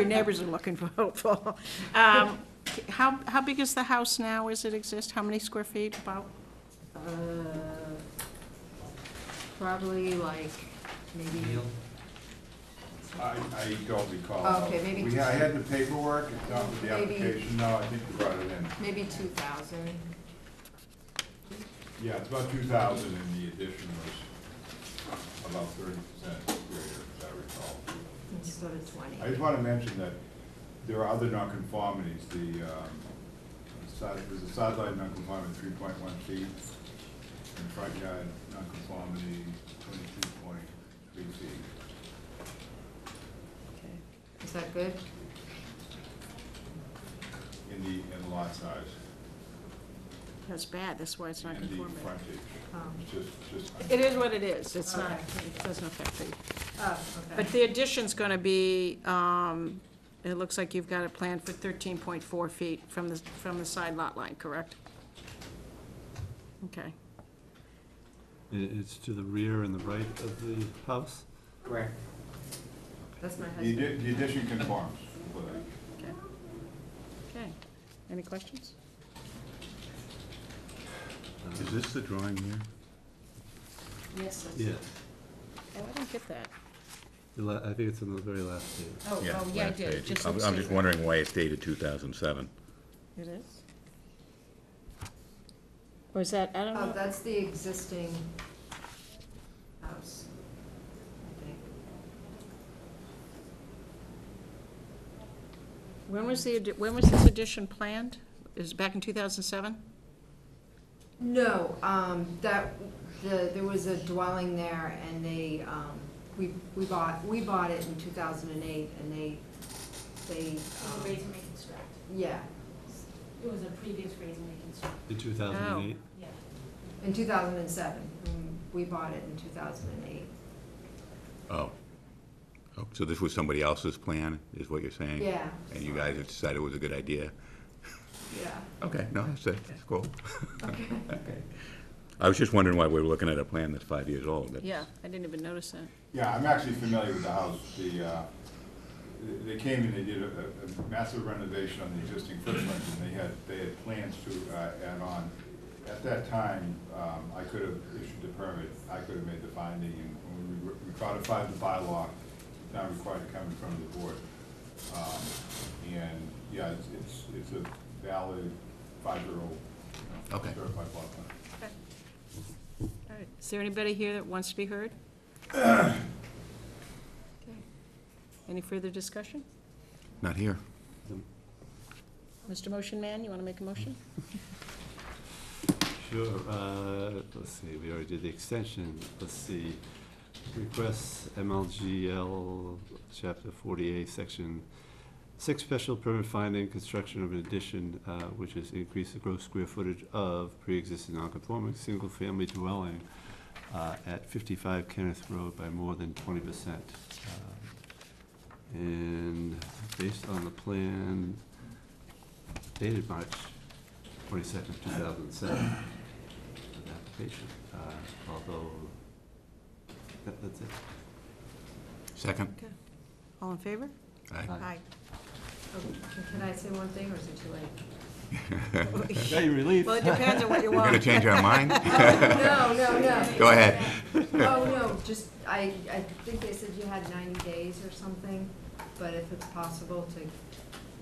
Your neighbors are looking for hopeful. Um, How, how big is the house now as it exists? How many square feet about? Uh, Probably like, maybe, I, I don't recall. Oh, okay, maybe We, I had the paperwork, it's not with the Maybe- application, no, I think you brought it in. maybe two thousand. Yeah, it's about two thousand and the addition was about thirty percent greater, as I recall. Instead of I twenty. just wanna mention that there are other nonconformities, the, um, side, there's a sideline nonconformity, three point one feet, and front yard nonconformity, twenty-two point three feet. Is that good? in the, in the lot size That's bad, that's why it's not and the conforming. frontage. Um, It's just, just. It is what it is, it's All not, right. it doesn't affect the, Oh, but the addition's gonna be, um, it looks like you've got it planned for thirteen point four feet from the, from the side lot line, correct? Okay. I- It's to the rear and the right of the house? Correct. That's my The husband. addi- the addition conforms, but Okay. Okay. Any questions? Is this the drawing here? Yes. Yeah, Oh, I didn't get that. The la- I think it's on the very last page. Oh, Yeah, oh, yeah, I last did. It page. just I'm looks I'm just like- wondering why it's dated 2007. It is? Or is that, I don't Oh, know. that's the existing house, I think. When was the, addi- when was this addition planned? Is it back in 2007? No, um, that, the, there was a dwelling there and they, um, we, we bought, we bought it in two thousand and eight and they, they, It was a um, raise and reconstruct. yeah. It was a previous raise and reconstruct, In 2008? yeah. In two thousand and seven, we bought it in two thousand and eight, Oh. Oh, So this was somebody else's plan, is what you're saying? yeah, And you guys decided it was a good idea? yeah, Okay, no, that's, that's cool. okay. I was just wondering why we were looking at a plan that's five years old. That's- Yeah, I didn't even notice that. Yeah, I'm actually familiar with the house. The, uh, they- they came and they did a, a massive renovation on the existing footprint, and they had, they had plans to uh, add on. At that time, um, I could have issued the permit, I could have made the finding, and when we re- we codified the bylaw, it's not required to come in front of the board. Um, And, yeah, it's, it's, it's a valid five-year-old, you know, Okay. certified plot plan. All right. Is there anybody here that wants to be heard? Okay. Any further discussion? Not here. Mr. Motion Man, you want to make a motion? Sure, uh, let's see, we already did the extension, let's see. Request MLGL, Chapter 40A, Section 6, special permit finding, construction of an addition, uh, which is increase the gross square footage of pre-existing non-conforming single-family dwelling uh, at 55 Kenneth Road by more than 20%. Um, And based on the plan dated March twenty-second, two thousand and seven, an application, uh, although, that, that's it. Second? All in favor? Aye. Aye. Oh, can- Can I say one thing or is it too late? Got your relief? Well, it depends on what you We're going to want. change our mind? Oh, No, no, no. Go ahead. Oh, no, just, I, I think they said you had ninety days or something, but if it's possible to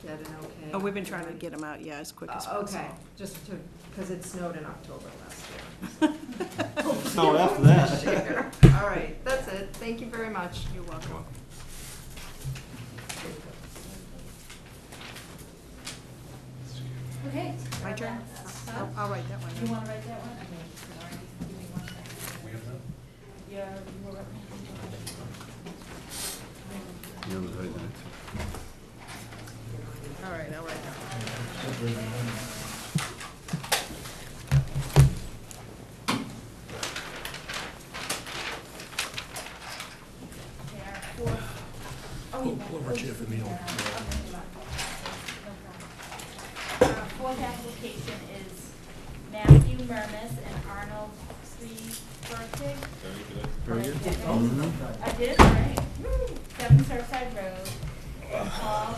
get an okay. Oh, we've been trying to get them out, yeah, as quick as Uh, possible. Okay, just to, because it snowed in October last year. So after that. Sure. All right, that's it. Thank you very much. You're welcome. Okay. My turn? Oh, Huh? I'll I'll write that one. Uh, You wanna write that one? Okay, sorry, give me one second. We have that? Yeah, you were. Yeah, it was very nice. All right, I'll write that one. Pull over chair for me. Fourth application is Matthew Murmas and Arnold Sreebertig. Very good. I did, all right. Woo! Seven Surfside Road. Paul